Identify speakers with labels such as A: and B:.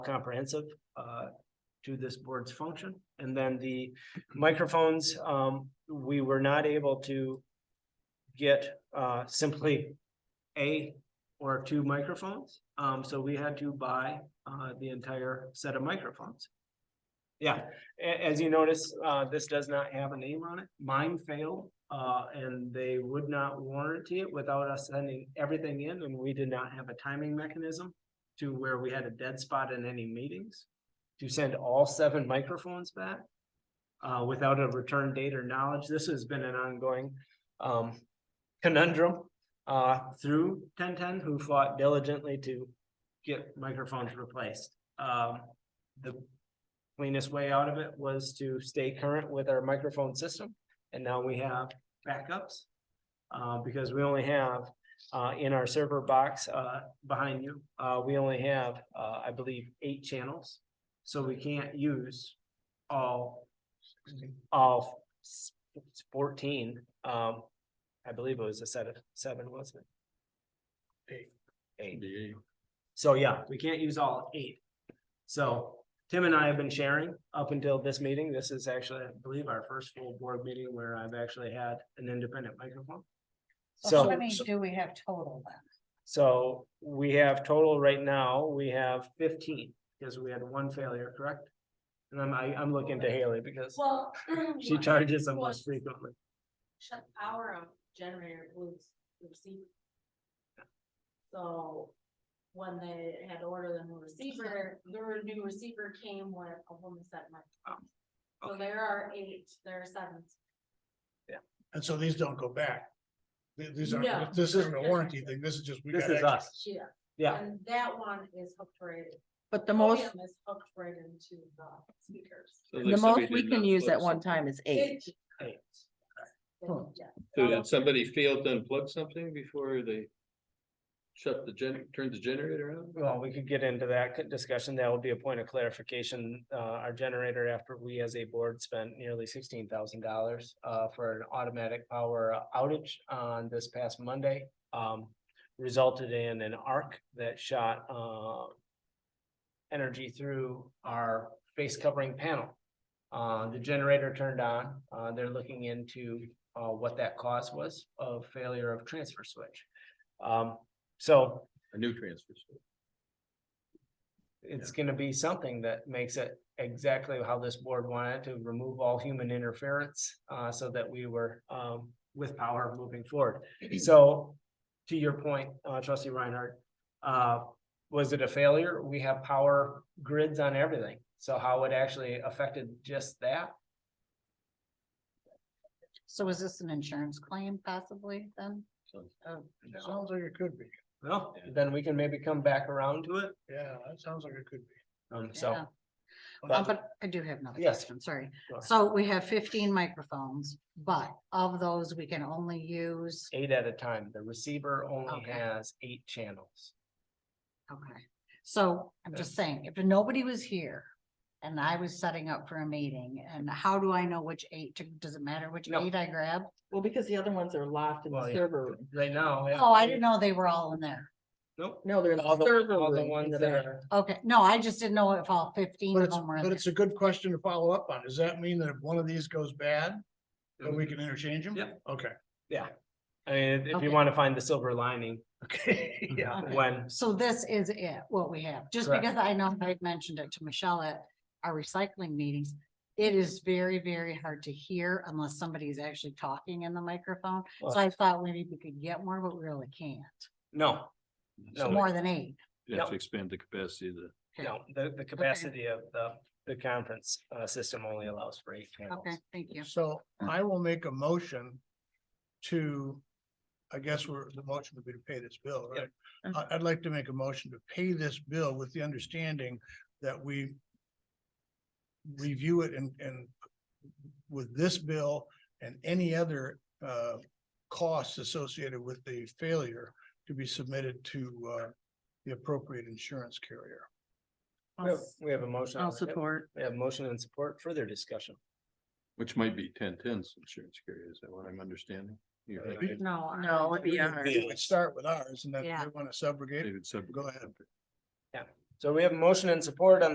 A: comprehensive uh, to this board's function. And then the microphones, um, we were not able to get uh, simply a or two microphones. Um, So we had to buy uh, the entire set of microphones. Yeah, a- as you notice, uh, this does not have a name on it. Mine failed, uh, and they would not warranty it without us sending everything in, and we did not have a timing mechanism to where we had a dead spot in any meetings, to send all seven microphones back uh, without a return date or knowledge. This has been an ongoing um, conundrum uh, through ten ten, who fought diligently to get microphones replaced. Um, the cleanest way out of it was to stay current with our microphone system, and now we have backups. Uh, because we only have uh, in our server box, uh, behind you, uh, we only have, uh, I believe, eight channels. So we can't use all, all s- fourteen, um, I believe it was a set of seven, wasn't it? Eight. Eight. So yeah, we can't use all eight. So Tim and I have been sharing up until this meeting. This is actually, I believe, our first full board meeting where I've actually had an independent microphone.
B: So
A: So.
B: how many do we have total then?
A: So we have total right now, we have fifteen, because we had one failure, correct? And I'm, I, I'm looking to Haley because
C: Well.
A: she charges them
C: was
A: less frequently.
C: Shut power of generator was received. So when they had ordered the new receiver, their new receiver came with a woman set mic.
A: Oh,
C: So there are eight, there are seven.
D: And so these don't go back. Th- These
C: No.
D: aren't, this isn't a warranty thing, this is just. we
A: This
D: got
A: is
D: extra.
A: us,
C: Yeah,
A: yeah,
C: and that one is hooked right.
E: But the
A: Oh,
E: most,
C: podium Is hooked right into the speakers.
E: the most we can use at one time is eight.
C: It-
A: eight.
C: Yeah.
F: So did somebody fail to unplug something before they shut the gen, turned the generator on?
A: Well, we could get into that c- discussion. That will be a point of clarification. Uh, our generator, after we as a board spent nearly sixteen thousand dollars uh, for an automatic power outage on this past Monday, um, resulted in an arc that shot, uh, energy through our face covering panel. Uh, the generator turned on. Uh, they're looking into, uh, what that cause was of failure of transfer switch. Um, so
F: A new transfer. switch.
A: it's gonna be something that makes it exactly how this board wanted to remove all human interference, uh, so that we were, um, with power moving forward. So, to your point, uh, trustee Reinhardt, uh, was it a failure? We have power grids on everything, so how it actually affected just that?
B: So is this an insurance claim possibly then?
F: So-
B: Oh,
D: It Sounds like it could be,
A: Well, then we can maybe come back around to it,
D: yeah, that sounds like it could be.
A: um, so.
B: yeah. Uh, But I do have another
A: Yes.
B: question, sorry.
A: Go ahead.
B: So we have fifteen microphones, but of those, we can only use,
A: Eight at a time, the receiver only
B: Okay.
A: has eight channels.
B: okay. So I'm just saying, if nobody was here and I was setting up for a meeting, and how do I know which eight, to- does it matter which
A: No.
B: eight I grab?
E: Well, because the other ones are locked in
A: Well,
E: the
A: yeah.
E: server room.
A: Right now.
B: Oh, I didn't know they were all in there.
A: Nope.
E: No, they're in
A: All
E: the
A: the,
E: server
A: all the
E: room.
A: ones that
E: in the-
A: are.
B: Okay, no, I just didn't know if all fifteen
D: But
B: of
D: it's,
B: them were in
D: but
B: there.
D: it's a good question to follow up on, does that mean that if one of these goes bad, then we can interchange them?
A: Mm-hmm. Yep.
D: Okay.
A: Yeah, I mean, if
B: Okay.
A: you wanna find the silver lining,
D: Okay,
A: Mm-hmm.
D: yeah.
B: Okay.
A: when,
B: So this is it, what we have, just
A: Correct.
B: because I know I've mentioned it to Michelle at our recycling meetings. It is very, very hard to hear unless somebody is actually talking in the microphone.
A: Well-
B: So I thought maybe we could get more, but we really can't.
A: no, No.
B: More than eight.
F: You have to expand the capacity of the.
B: Okay.
A: no, the, the capacity of the, the conference, uh, system only allows for eight panels.
B: Okay, thank you.
D: So I will make a motion to, I guess we're, the motion would be to pay this bill, right?
E: Yep.
D: I, I'd like to make a motion to pay this bill with the understanding that we review it and, and with this bill and any other, uh, costs associated with the failure to be submitted to, uh, the appropriate insurance carrier.
A: We have- We have a motion. on
E: I'll
A: the table.
E: support.
A: We have motion and support, further discussion.
F: Which might be ten tens insurance carrier, is that what I'm understanding? You're
A: Uh,
F: right.
B: No.
E: No, it'd be
D: We
E: ours.
D: would start with ours and then if
B: Yeah.
D: they want to subrogate,
F: David said-
D: go ahead.
A: So we have a motion and support on